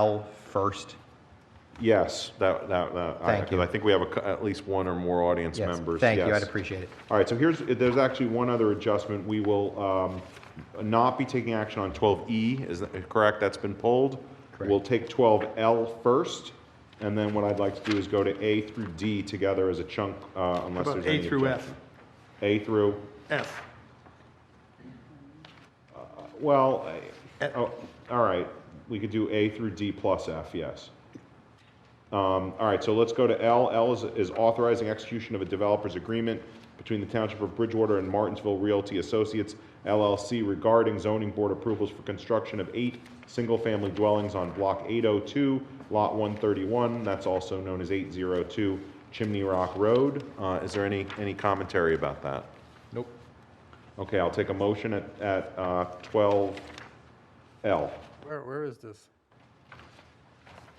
L first? Yes, that, that, that. I- Thank you. 'cause I think we have a cou- at least one or more audience Yes. members. Thank you, I'd yes. appreciate it. All right, so here's, there's actually one other adjustment. We will um, not be taking action on 12E, is that correct? That's been pulled. Correct. We'll take 12L first, and then what I'd like to do is go to A through D together as a chunk, uh, unless about there's A any through F? objection. A through, Uh, F. well, I- oh, all right, we could do A through D plus F, yes. Um, All right, so let's go to L. L is- is authorizing execution of a developer's agreement between the Township of Bridgewater and Martinsville Realty Associates LLC regarding zoning board approvals for construction of eight single-family dwellings on Block 802, Lot 131, that's also known as 802 Chimney Rock Road. Uh, Is there any, any commentary about that? Nope. Okay, I'll take a motion at, at uh, 12L. Where, where is this?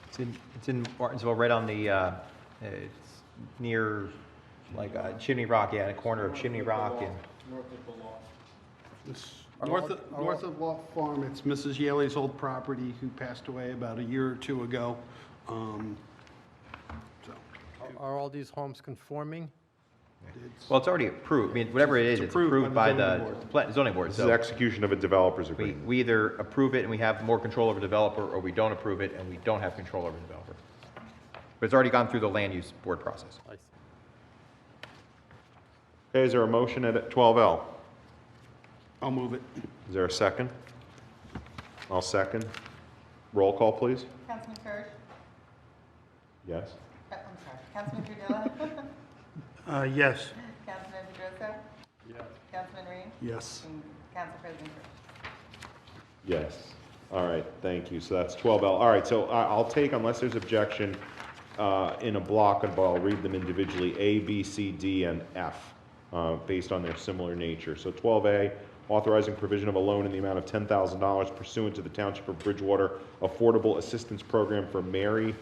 It's in, it's in Martinsville, right on the, uh, it's near, like, uh, Chimney Rock, yeah, the corner of Chimney Rock and, This- North North, of- north of Law Farm, it's Mrs. Yaley's old property who passed away about a year or two ago. Um, So, Are- Are all these homes conforming? it's, well, it's already approved, I mean, whatever it is, it's approved approved by by the the zoning board. pla- zoning board, This is so execution of a developer's we, agreement. we either approve it and we have more control over developer, or we don't approve it and we don't have control over developer. But it's already gone through the land use board process. I s- Okay, is there a motion at 12L? I'll move it. Is there a second? I'll second. Roll call, please. Councilman Kirsch, Yes. Uh, I'm sorry, Councilman Trudilla, Uh, Yes. Councilman Pedrosa, Councilman Ring, Yes. and Council President Kirsch. Yes. All right, thank you. So that's 12L. All right, so I- I'll take, unless there's objection, uh, in a block, and I'll read them individually, A, B, C, D, and F, uh, based on their similar nature. So 12A, authorizing provision of a loan in the amount of $10,000 pursuant to the Township of Bridgewater Affordable Assistance Program for Mary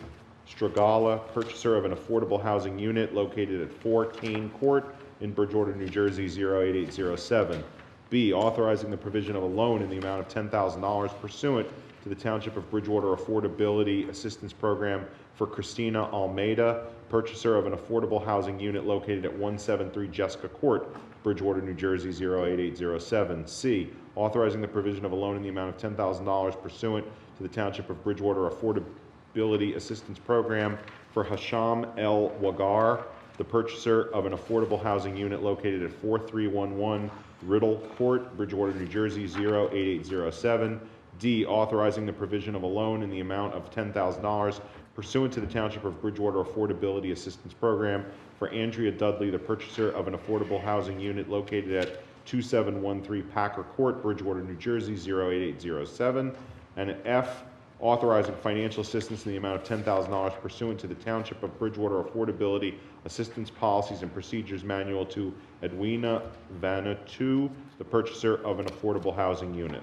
Stragala, purchaser of an affordable housing unit located at 4 Kane Court in Bridgewater, New Jersey, 08807. B, authorizing the provision of a loan in the amount of $10,000 pursuant to the Township of Bridgewater Affordability Assistance Program for Christina Almeida, purchaser of an affordable housing unit located at 173 Jessica Court, Bridgewater, New Jersey, 08807. C, authorizing the provision of a loan in the amount of $10,000 pursuant to the Township of Bridgewater Affordability Assistance Program for Hasham L. Wagar, the purchaser of an affordable housing unit located at 4311 Riddle Court, Bridgewater, New Jersey, 08807. D, authorizing the provision of a loan in the amount of $10,000 pursuant to the Township of Bridgewater Affordability Assistance Program for Andrea Dudley, the purchaser of an affordable housing unit located at 2713 Packer Court, Bridgewater, New Jersey, 08807. And F, authorizing financial assistance in the amount of ten thousand dollars pursuant to the Township of Bridgewater Affordability Assistance Policies and Procedures Manual to Edwina Vanatu, the purchaser of an affordable housing unit.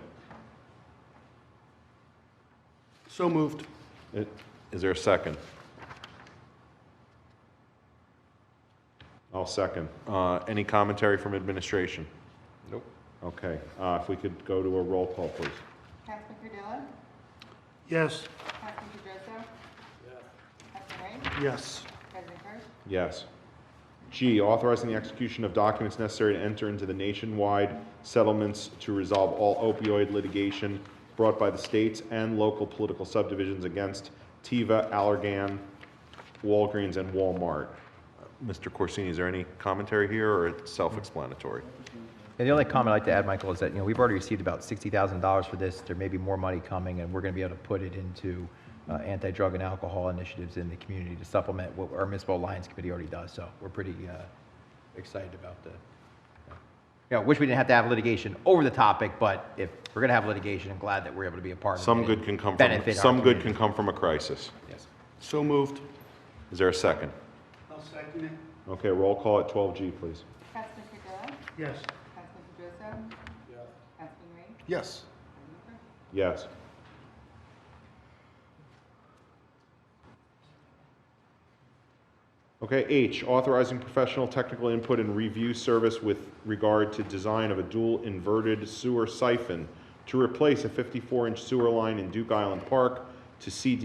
So moved. I- Uh, Is there a second? I'll second. Uh, any commentary from administration? Nope. Okay, uh, if we could go to a roll call, please. Councilman Trudilla, Yes. Councilman Pedrosa. Councilman Ring, Yes. President Kirsch, Yes. G, authorizing the execution of documents necessary to enter into the nationwide settlements to resolve all opioid litigation brought by the states and local political subdivisions against Teva, Allergan, Walgreens, and Walmart. Mr. Uh, Corsini, is there any commentary here, or it's self-explanatory? Mm. And the only comment I'd like to add, Michael, is that, you know, we've already received about $60,000 for this. There may be more money coming, and we're going to be able to put it into uh, anti-drug and alcohol initiatives in the community to supplement what our municipal alliance committee already does. So we're pretty uh, excited about the, yeah, wish we didn't have to have litigation over the topic, but if we're going to have litigation, I'm glad that we're able to be a part of it. Some and good can come from, benefit our some good can community. come from a crisis. Yes. So moved. Is there a second? I'll second it. Okay, roll call at 12G, please. Councilman Trudilla, Yes. Councilman Pedrosa. Councilman Ring, Yes. President Kirsch. Yes. Okay, H, authorizing professional technical input and review service with regard to design of a dual inverted sewer siphon to replace a 54-inch sewer line in Duke Island Park to CD